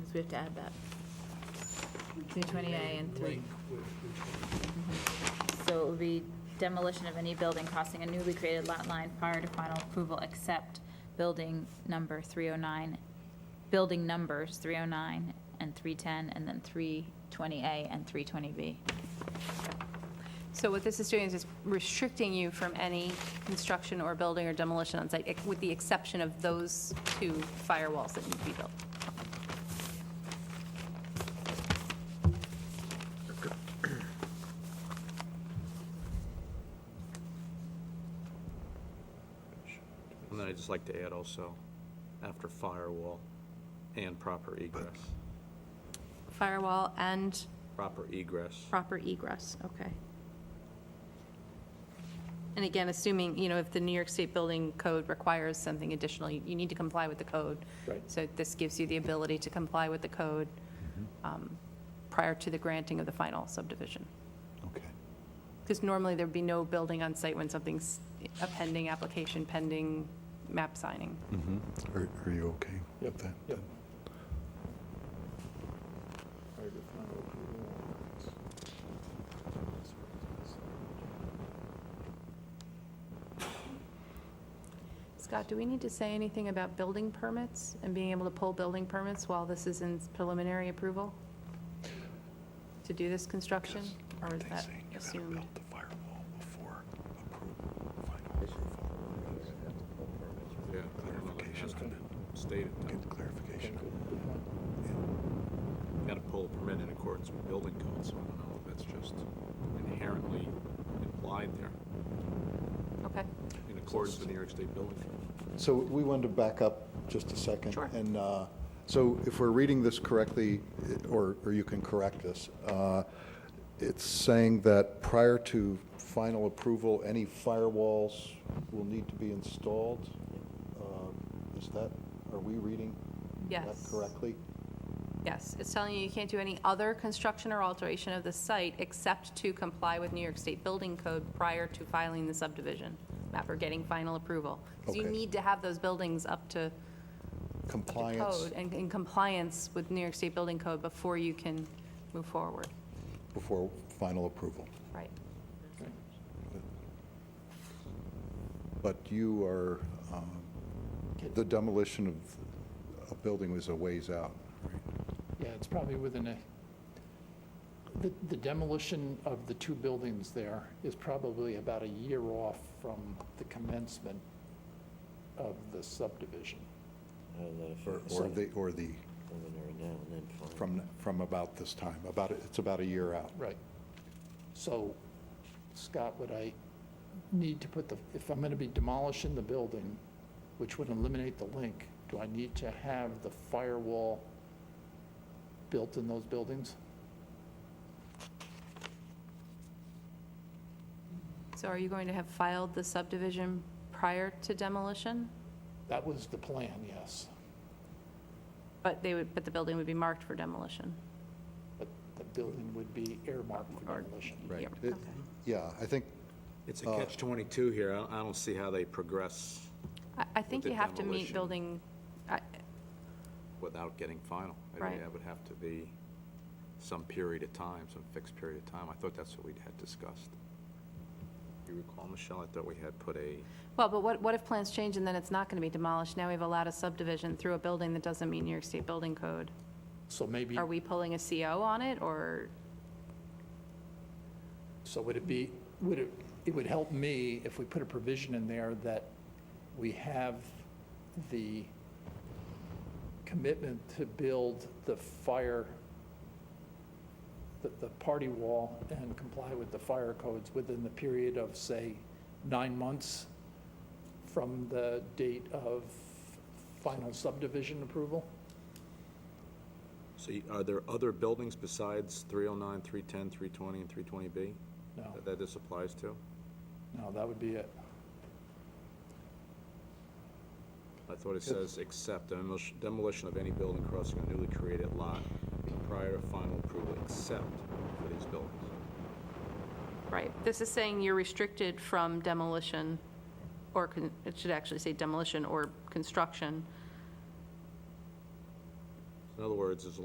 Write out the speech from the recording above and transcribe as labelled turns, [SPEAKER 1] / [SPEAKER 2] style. [SPEAKER 1] So we have to add that. Three twenty A and three. So it would be demolition of any building crossing a newly created lot line prior to final approval except building number three oh nine, building numbers three oh nine and three ten, and then three twenty A and three twenty B.
[SPEAKER 2] So what this is doing is it's restricting you from any construction or building or demolition on site, ex- with the exception of those two firewalls that need to be built.
[SPEAKER 3] And then I'd just like to add also, after firewall and proper egress,
[SPEAKER 2] Firewall and
[SPEAKER 3] proper egress.
[SPEAKER 2] proper egress, okay. And again, assuming, you know, if the New York State Building Code requires something additional, you you need to comply with the code.
[SPEAKER 3] Right.
[SPEAKER 2] So this gives you the ability to comply with the code um, prior to the granting of the final subdivision.
[SPEAKER 4] Okay.
[SPEAKER 2] Because normally there'd be no building on site when something's a pending application, pending map signing.
[SPEAKER 4] Are are you okay with that?
[SPEAKER 5] Yep.
[SPEAKER 2] Scott, do we need to say anything about building permits and being able to pull building permits while this is in preliminary approval? To do this construction, or is
[SPEAKER 4] They
[SPEAKER 2] that
[SPEAKER 4] say you gotta
[SPEAKER 2] assumed?
[SPEAKER 4] build the firewall before approval, final approval.
[SPEAKER 3] Yeah. I don't know, that has to be Stated,
[SPEAKER 4] Get clarification.
[SPEAKER 3] got to pull a permit in accordance with building codes, so I don't know if that's just inherently implied there,
[SPEAKER 2] Okay,
[SPEAKER 3] in accordance with New York State Building Code.
[SPEAKER 5] So we wanted to back up just a second.
[SPEAKER 2] Sure.
[SPEAKER 5] And uh, so if we're reading this correctly, i- or or you can correct us, uh, it's saying that prior to final approval, any firewalls will need to be installed? Um, Is that, are we reading that
[SPEAKER 2] Yes.
[SPEAKER 5] correctly?
[SPEAKER 2] yes, it's telling you you can't do any other construction or alteration of the site except to comply with New York State Building Code prior to filing the subdivision map or getting final approval. Because you
[SPEAKER 5] Okay.
[SPEAKER 2] need to have those buildings up to the
[SPEAKER 5] Compliance
[SPEAKER 2] code and in compliance with New York State Building Code before you can move forward.
[SPEAKER 5] before final approval.
[SPEAKER 2] Right.
[SPEAKER 5] But you are, um, the demolition of a building was a ways out.
[SPEAKER 6] Yeah, it's probably within a, the- the demolition of the two buildings there is probably about a year off from the commencement of the subdivision.
[SPEAKER 5] Or- Or the, or the, from, from about this time, about, it's about a year out.
[SPEAKER 6] Right. So, Scott, would I need to put the, if I'm going to be demolishing the building, which would eliminate the link, do I need to have the firewall built in those buildings?
[SPEAKER 2] So are you going to have filed the subdivision prior to demolition?
[SPEAKER 6] That was the plan, yes.
[SPEAKER 2] But they would, but the building would be marked for demolition?
[SPEAKER 6] But the building would be earmarked for demolition.
[SPEAKER 2] Right.
[SPEAKER 5] It-
[SPEAKER 2] Okay.
[SPEAKER 5] Yeah, I think,
[SPEAKER 3] It's a catch-22 here. I don't- I don't see how they progress
[SPEAKER 2] I, I think
[SPEAKER 3] the
[SPEAKER 2] you have to meet
[SPEAKER 3] demolition.
[SPEAKER 2] building, I,
[SPEAKER 3] without getting final. I
[SPEAKER 2] Right.
[SPEAKER 3] think that would have to be some period of time, some fixed period of time. I thought that's what we had discussed. You recall, Michelle, I thought we had put a,
[SPEAKER 2] well, but what, what if plans change and then it's not going to be demolished? Now we've allowed a subdivision through a building that doesn't meet New York State Building Code.
[SPEAKER 6] So maybe.
[SPEAKER 2] Are we pulling a CO on it, or,
[SPEAKER 6] So would it be, would it, it would help me if we put a provision in there that we have the commitment to build the fire, the, the party wall and comply with the fire codes within the period of, say, nine months from the date of final subdivision approval?
[SPEAKER 3] so you- are there other buildings besides 309, 310, 320, and 320B?
[SPEAKER 6] No,
[SPEAKER 3] that- that this applies to.
[SPEAKER 6] no, that would be it.
[SPEAKER 3] I thought it says, except demolish- demolition of any building crossing a newly created lot prior to final approval, except for these buildings.
[SPEAKER 2] right? This is saying you're restricted from demolition, or, con- it should actually say demolition or construction.
[SPEAKER 3] In other words, as